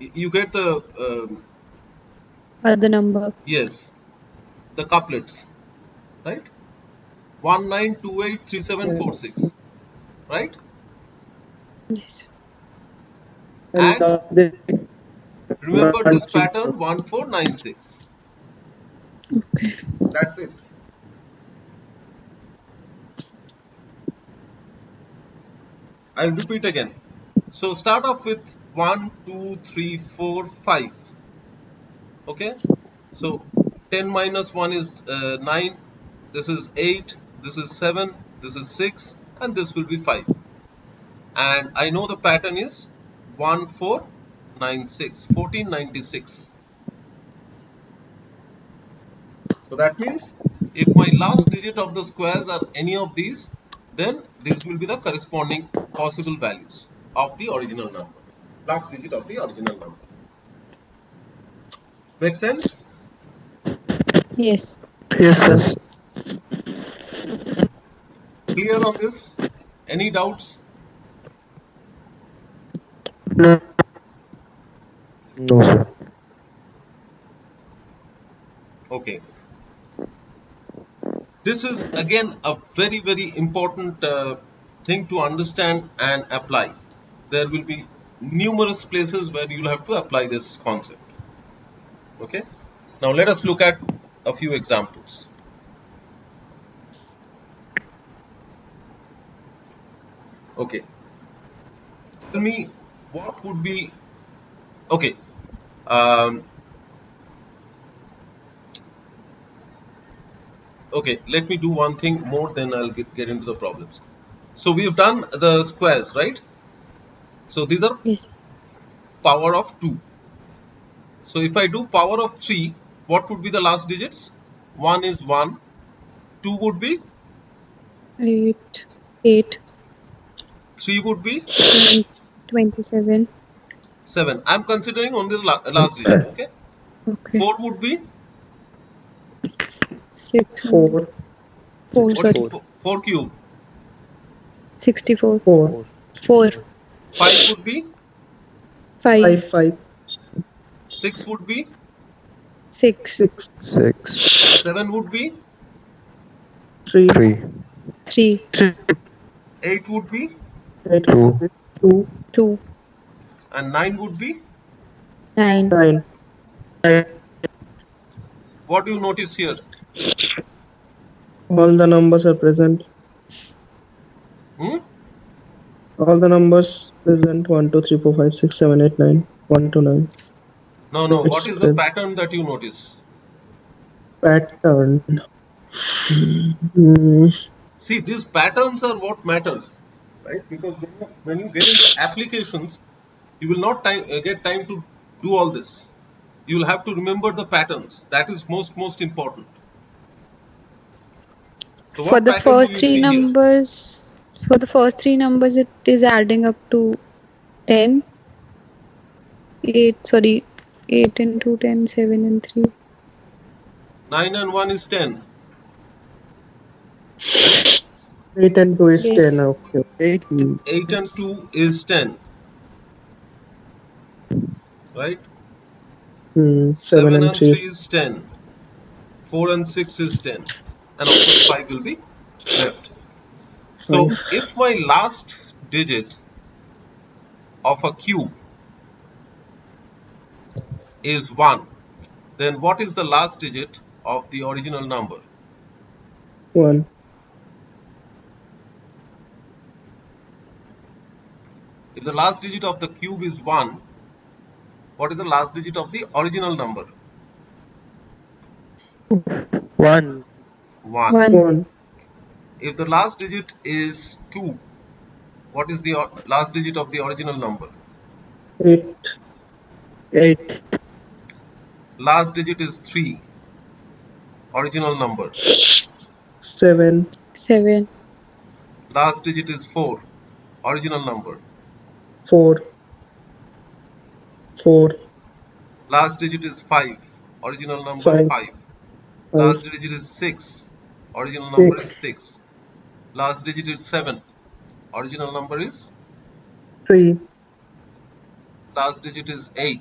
you get the um, Other number. yes the couplets right one nine two eight three seven four six right Yes. And- And remember this pattern one four nine six Okay. that's it I'll repeat again so start off with one two three four five okay so 10 minus 1 is uh, 9 this is 8 this is 7 this is 6 and this will be 5 and I know the pattern is 1496 1496 so that means if my last digit of the squares are any of these then these will be the corresponding possible values of the original number last digit of the original number make sense Yes. yes, sir. clear on this any doubts No. No, sir. Okay. This is again a very, very important uh, thing to understand and apply. There will be numerous places where you'll have to apply this concept. Okay. Now let us look at a few examples. Okay. Tell me what would be. Okay. Um, okay let me do one thing more then i'll get, get into the problems so we've done the squares right so these are Yes. power of 2 so if i do power of 3 what would be the last digits 1 is 1 2 would be Eight. Eight. 3 would be nine, Twenty-seven. 7 i'm considering only the la- last digit okay Okay. 4 would be Six. Four, Four. what is Sorry. four, 4 cube Sixty-four. four, Four. 5 would be Five. five, five, 6 would be Six. six 7 would be three, three Three. 8 would be eight, Two. two, Two. and 9 would be Nine. nine, what do you notice here All the numbers are present. hmm? All the numbers present. One, two, three, four, five, six, seven, eight, nine. One to nine. No, no. It's What is the good. pattern that you notice? Pattern. Hmm. See, these patterns are what matters, right? Because when you, when you get into applications, you will not time, uh, get time to do all this. You will have to remember the patterns. That is most most important. So what for the pattern do first you three see here? numbers, for the first three numbers, it is adding up to 10. 8, sorry, 8 and 2, 10, 7 and 3. nine and one is ten. Eight and two is Yes. ten. Okay. eight Hmm. Eight and two is ten. Right? Hmm. Seven, Seven, and, and three. three is ten. Four and six is ten. And of course five will be left. So if my last digit of a cube is 1, then what is the last digit of the original number? One. If the last digit of the cube is 1, what is the last digit of the original number? one 1. 1, One. If the last digit is 2, what is the or- last digit of the original number? Eight. eight Last digit is 3, original number. Seven. 7, Last digit is 4, original number. Four. Four. Last digit is 5. Original number Five. 5. Five. Last digit is 6. Original number is 6. Last digit is 7. Original number is. Three. Last digit is 8.